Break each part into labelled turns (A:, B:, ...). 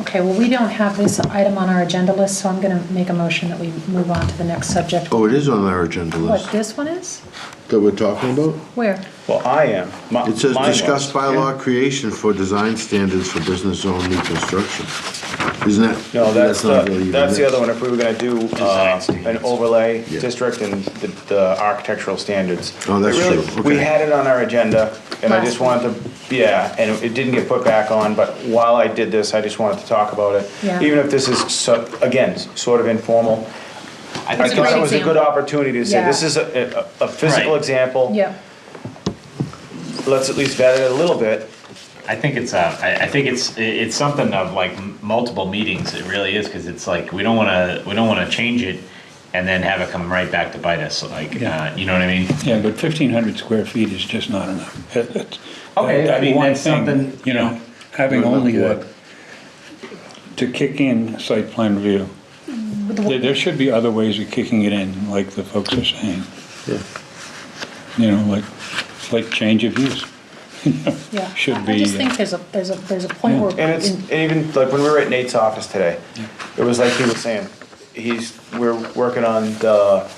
A: Okay, well, we don't have this item on our agenda list, so I'm going to make a motion that we move on to the next subject.
B: Oh, it is on our agenda
A: What,
B: list
A: this one is?
B: that we're talking about?
A: Where?
C: Well, I am. My-
B: It says
C: mine was.
B: discuss bylaw creation for design standards for business zone new construction. Isn't that?
C: No, that's
B: not
C: the,
B: really even
C: that's the
B: it.
C: other one, if we were gonna do, uh, an overlay district and the, the architectural standards.
B: Oh, that's
C: It really-
B: true.
C: We
B: Okay.
C: had it on our agenda, and I just
A: Last
C: wanted to, yeah, and it didn't get put back on, but while I did this, I just wanted to talk about it.
A: Yeah.
C: Even if this is, so- again, s- sort of informal, I I
A: It's a
C: thought
A: great
C: it was a good
A: example.
C: opportunity to say, this
A: Yeah.
C: is a, a a physical
D: Right.
C: example.
A: Yeah,
C: Let's at least vet it a little bit,
D: I think it's, uh, I, I think it's, i- it's something of like m- multiple meetings, it really is, because it's like, we don't wanna, we don't wanna change it and then have it come right back to bite us, like,
E: Yeah.
D: uh, you know what I mean?
E: Yeah, but fifteen hundred square feet is just not enough. That- that's-
D: Okay, I
E: that
D: mean,
E: one
D: that's
E: thing,
D: something-
E: You know, having
B: What about
E: only
B: what?
E: that, to kick in site plan review, there, there should be other ways of kicking it in, like the folks are saying. You know, like, like change of use.
A: yeah.
E: Should
A: I- I
E: be,
A: just
E: uh,
A: think there's a, there's a, there's a point where.
C: And it's and even like when we were at Nate's office today, it was like he was saying, he's we're working on the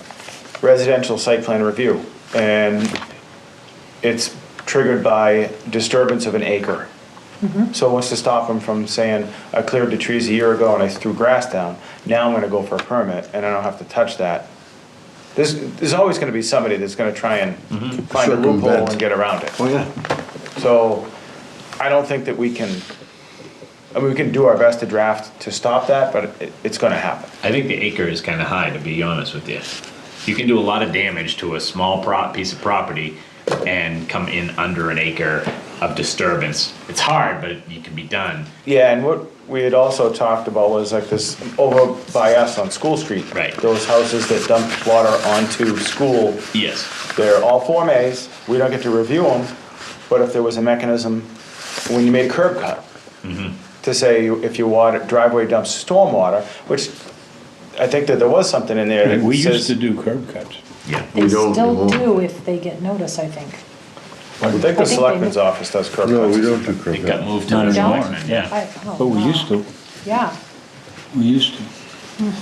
C: residential site plan review, and it's triggered by disturbance of an acre. So what's to stop him from saying, I cleared the trees a year ago and I threw grass down. Now I'm going to go for a permit and I don't have to touch that. There's there's always going to be somebody that's going to try and find a loophole
B: Circumvent.
C: and get around it.
B: Oh, yeah.
C: So I don't think that we can, I mean, we can do our best to draft to stop that, but it, it's gonna happen.
D: I think the acre is kind of high, to be honest with you. You can do a lot of damage to a small prop, piece of property and come in under an acre of disturbance. It's hard, but it can be done.
C: Yeah, and what we had also talked about was like this, over by us on School Street.
D: Right.
C: Those houses that dump water onto school,
D: Yes.
C: they're all Form As, we don't get to review them, but if there was a mechanism, when you made a curb cut,
E: Mm-hmm.
C: to say if your water, driveway dumps stormwater, which I think that there was something in there that says.
E: we used to do curb cuts.
D: Yeah.
A: They
B: we don't, we
A: still
B: won't.
A: do if they get notice, I think.
C: I think
A: they
C: the selectmen's
A: do.
C: office does curb cuts.
B: No, we don't do curb
D: It got
B: cuts.
D: moved to
E: Not
D: the
A: anymore,
D: selectmen, yeah.
A: I- oh,
E: But we
A: wow.
E: used to,
A: Yeah,
E: we used to.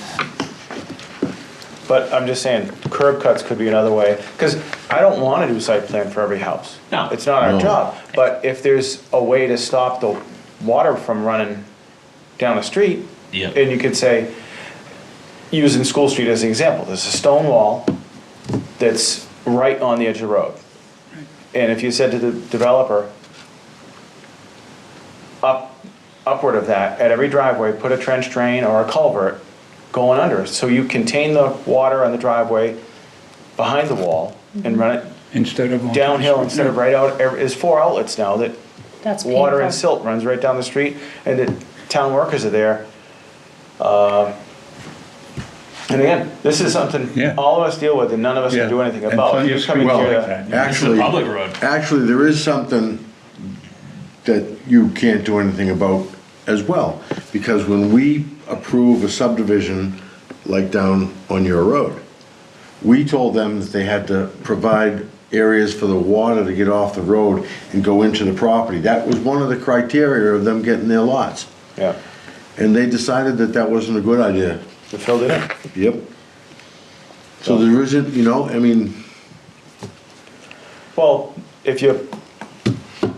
C: But I'm just saying, curb cuts could be another way, because I don't want to do site plan for every house.
D: No.
C: It's not our
B: No.
C: job, but if there's a way to stop the water from running down the street,
D: Yeah.
C: and you could say, using School Street as an example, there's a stone wall that's right on the edge of the road. And if you said to the developer, up, upward of that, at every driveway, put a trench drain or a culvert going under, so you contain the water on the driveway behind the wall and run it
E: Instead of. on-
C: downhill instead of right out, ev- there's four outlets now that
A: that's painful.
C: water and silt runs right down the street, and the town workers are there. Um, And again, this is something
E: Yeah.
C: all of us deal with and none of us
E: Yeah.
C: can do anything
E: And
C: about.
E: plenty of
C: You come in
E: streets
C: here
E: like
C: to-
E: that, yeah.
B: Actually,
D: public road.
B: actually, there is something that you can't do anything about as well. Because when we approve a subdivision, like down on your road, we told them that they had to provide areas for the water to get off the road and go into the property. That was one of the criteria of them getting their lots.
C: Yeah,
B: And they decided that that wasn't a good idea.
C: we filled it in.
B: Yep. So there isn't, you know, I mean,
C: Well, if you,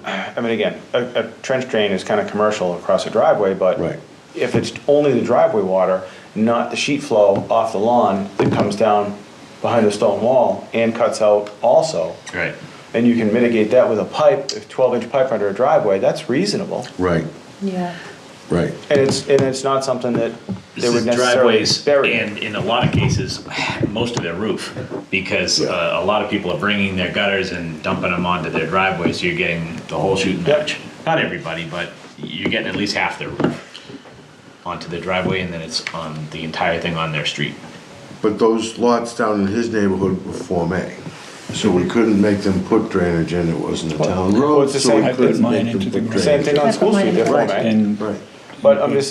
C: I mean, again, a, a trench drain is kind of commercial across a driveway, but
B: Right.
C: if it's only the driveway water, not the sheet flow off the lawn that comes down behind the stone wall and cuts out also,
D: Right.
C: and you can mitigate that with a pipe, a twelve-inch pipe under a driveway, that's reasonable.
B: right,
A: Yeah,
B: right.
C: And it's, and it's not something that they
D: This
C: would
D: is
C: necessarily
D: driveways
C: bury.
D: and in a lot of cases, most of their roof, because uh, a lot of people are bringing their gutters and dumping them onto their driveway, so you're getting the whole shooting
C: Yep.
D: match. Not everybody, but you're getting at least half their roof onto the driveway, and then it's on the entire thing on their street.
B: But those lots down in his neighborhood were Form A. So we couldn't make them put drainage in, it wasn't a town
C: Well,
B: road,
C: it's the
B: so
C: same- I
B: we
C: put
B: couldn't
E: mine
B: make them
E: into the
B: put
E: ground.
C: Same
B: drainage.
C: thing on
A: That's
C: School
A: what
C: Street,
A: mine
C: they're
A: is.
C: Form A.
E: And
B: Right.
C: But I'm just